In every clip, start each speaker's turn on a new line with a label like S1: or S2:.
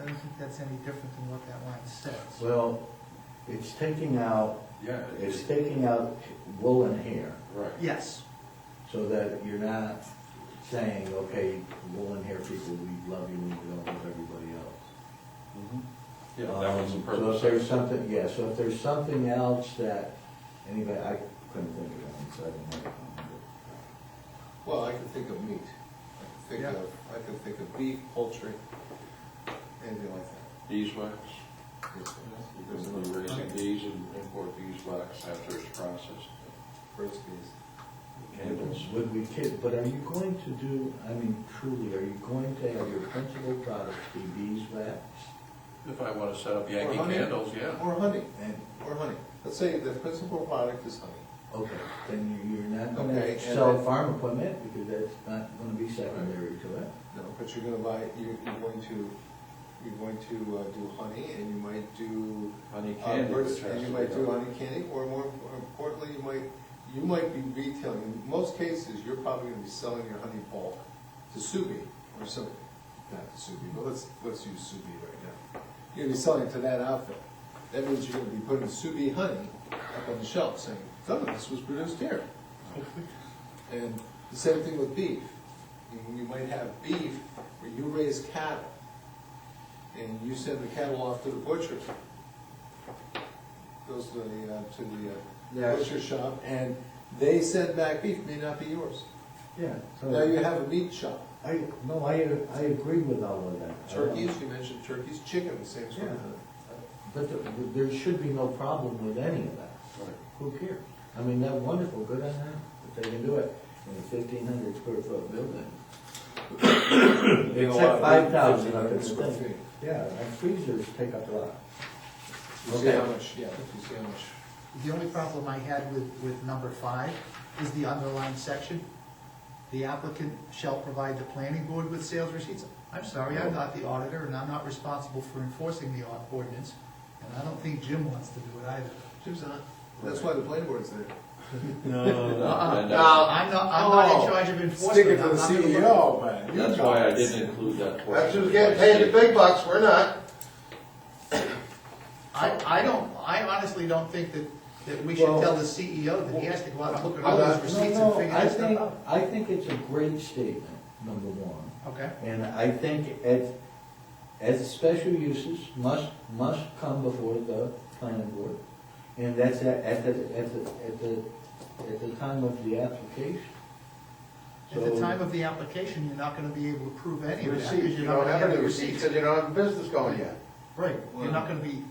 S1: I don't think that's any different than what that line says.
S2: Well, it's taking out,
S3: Yeah,
S2: it's taking out woolen hair,
S3: right.
S1: Yes,
S2: so that you're not saying, okay, woolen hair people, we love you, and we don't love everybody else.
S3: Yeah, that was
S2: Um, So
S3: the
S2: if
S3: purpose.
S2: there's something, yeah, so if there's something else that anybody, I couldn't think of it, so I didn't have it.
S4: Well, I can think of meat. I can think
S1: Yeah.
S4: of, I can think of beef, poultry, anything like that.
S3: Beeswax,
S4: There's
S3: because
S4: another
S3: we raise
S4: raising,
S3: bees and import beeswax after it's processed.
S4: roast beef.
S3: Candles.
S2: Would we kid, but are you going to do, I mean, truly, are you going to have your principal products be beeswax?
S3: If I want to set up Yankee
S4: Or honey.
S3: candles, yeah.
S4: Or honey,
S2: And,
S4: or honey. Let's say the principal product is honey.
S2: okay, then you- you're not
S4: Okay,
S2: gonna
S4: and
S2: sell
S4: then-
S2: farm equipment, because that's not gonna be secondary to it.
S4: No, but you're gonna buy, you're, you're going to, you're going to uh, do honey and you might do.
S3: Honey
S4: uh,
S3: candy.
S4: birds-
S3: which has
S4: And you
S3: to
S4: might
S3: be
S4: do
S3: done.
S4: honey candy, or more or importantly, you might, you might be retailing. In most cases, you're probably gonna be selling your honey bulk to Subi or some, not to Subi, but let's, let's use Subi right now. You're gonna be selling it to that outfit. That means you're gonna be putting Subi honey up on the shelf saying, some of this was produced here. And the same thing with beef. You- You might have beef where you raise cattle and you send the cattle off to the butcher. Goes to the, uh, to the
S2: Yeah.
S4: uh, butcher shop and they send back beef, may not be yours.
S2: Yeah. so-
S4: Now you have a meat shop.
S2: I, no, I, I agree with all of that. I don't-
S4: Turkeys, you mentioned turkeys, chicken, the same sort of
S2: Oh. Yeah.
S4: thing.
S2: But there- there should be no problem with any of that.
S3: Right.
S2: Who cares? I mean, that wonderful, good on them, if they can do it in a fifteen hundred square foot building. Except five thousand, I could
S4: Square
S2: think.
S4: feet.
S2: Yeah, and freezers take up a lot.
S4: You see how
S2: Okay.
S4: much, yeah, you see how much.
S1: the only problem I had with, with number five is the underlying section. The applicant shall provide the planning board with sales receipts. I'm sorry, I'm not the auditor, and I'm not responsible for enforcing the au- ordinance, and I don't think Jim wants to do it either.
S4: Jim's not, that's why the planning board's there.
S1: Uh-uh,
S3: No,
S1: No,
S3: that-
S1: I'm not, I'm not
S4: Oh,
S1: in charge of
S4: Stick
S1: enforcement.
S4: it to
S1: I'm
S4: the
S1: not gonna
S2: E
S1: look-
S4: CEO, man. You
S3: That's why I
S4: guys.
S3: didn't include that portion.
S5: That's who's getting paid the big bucks, we're not.
S1: I, I don't, I honestly don't think that, that we should
S2: Well-
S1: tell the CEO that he has to go out and look at all
S2: No,
S1: those receipts
S2: no,
S1: and figure
S2: I
S1: that stuff
S2: think-
S1: out.
S2: I think it's a great statement, number one.
S1: Okay,
S2: And I think as, as special uses must, must come before the planning board. And that's at, at the, at the, at the, at the time of the application.
S1: at the
S2: So-
S1: time of the application, you're not gonna be able to prove any of that, because
S5: Receipts, you
S1: you're not
S5: don't
S1: gonna
S5: have
S1: have
S5: any
S1: the
S5: receipts
S1: receipts.
S5: because you don't have business going yet.
S1: Right, you're not gonna be,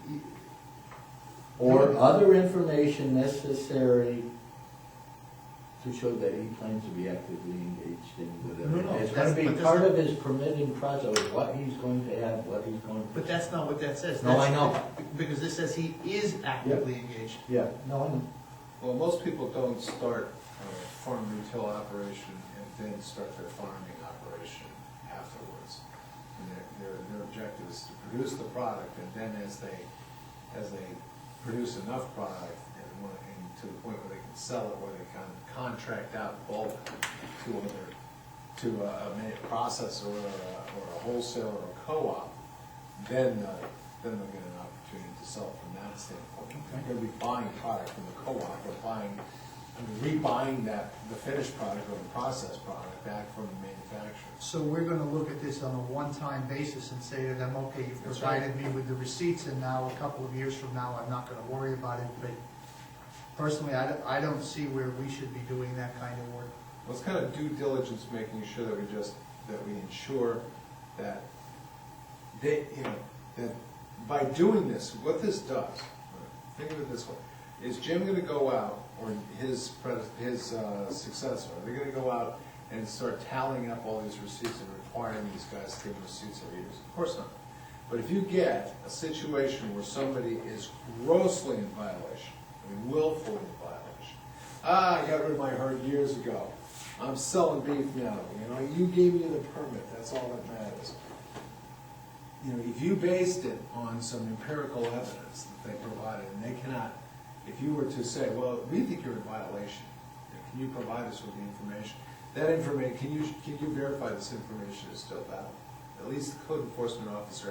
S2: Or other information necessary to show that he plans to be actively engaged in
S1: No,
S2: whatever.
S1: no,
S2: It's
S1: that's-
S2: gonna be
S1: but this-
S2: part of his permitting process, what he's going to have, what he's going to.
S1: but that's not what that says.
S2: No, I
S1: That's-
S2: know.
S1: Because this says he is actively engaged.
S2: Yeah, no, I know.
S4: Well, most people don't start a farm retail operation and then start their farming operation afterwards. And their, their, their objective is to produce the product, and then as they, as they produce enough product and want, and to the point where they can sell it, where they can contract out bulk to other, to uh, a, a ma- processor or a, or a wholesaler or a co-op, then, uh, then they'll get an opportunity to sell from that standpoint. They're gonna be buying product from the co-op, or buying, I mean, rebuying that, the finished product or the processed product back from the manufacturer.
S1: So we're gonna look at this on a one-time basis and say to them, okay, you've
S4: That's right.
S1: provided me with the receipts, and now a couple of years from now, I'm not gonna worry about it, but personally, I don't, I don't see where we should be doing that kind of work.
S4: Well, it's kind of due diligence, making sure that we just, that we ensure that they, you know, that by doing this, what this does, think of it this way, is Jim gonna go out, or his, pres- his uh, successor, are they gonna go out and start tallying up all these receipts and requiring these guys to give receipts every year? Of course not. But if you get a situation where somebody is grossly in violation, I mean willfully in violation, ah, I got rid of my herd years ago, I'm selling beef now, you know, you gave me the permit, that's all that matters you know, if you based it on some empirical evidence that they provided, and they cannot, if you were to say, well, we think you're in violation, can you provide us with the information? That information, can you, can you verify this information is still valid? At least the code enforcement officer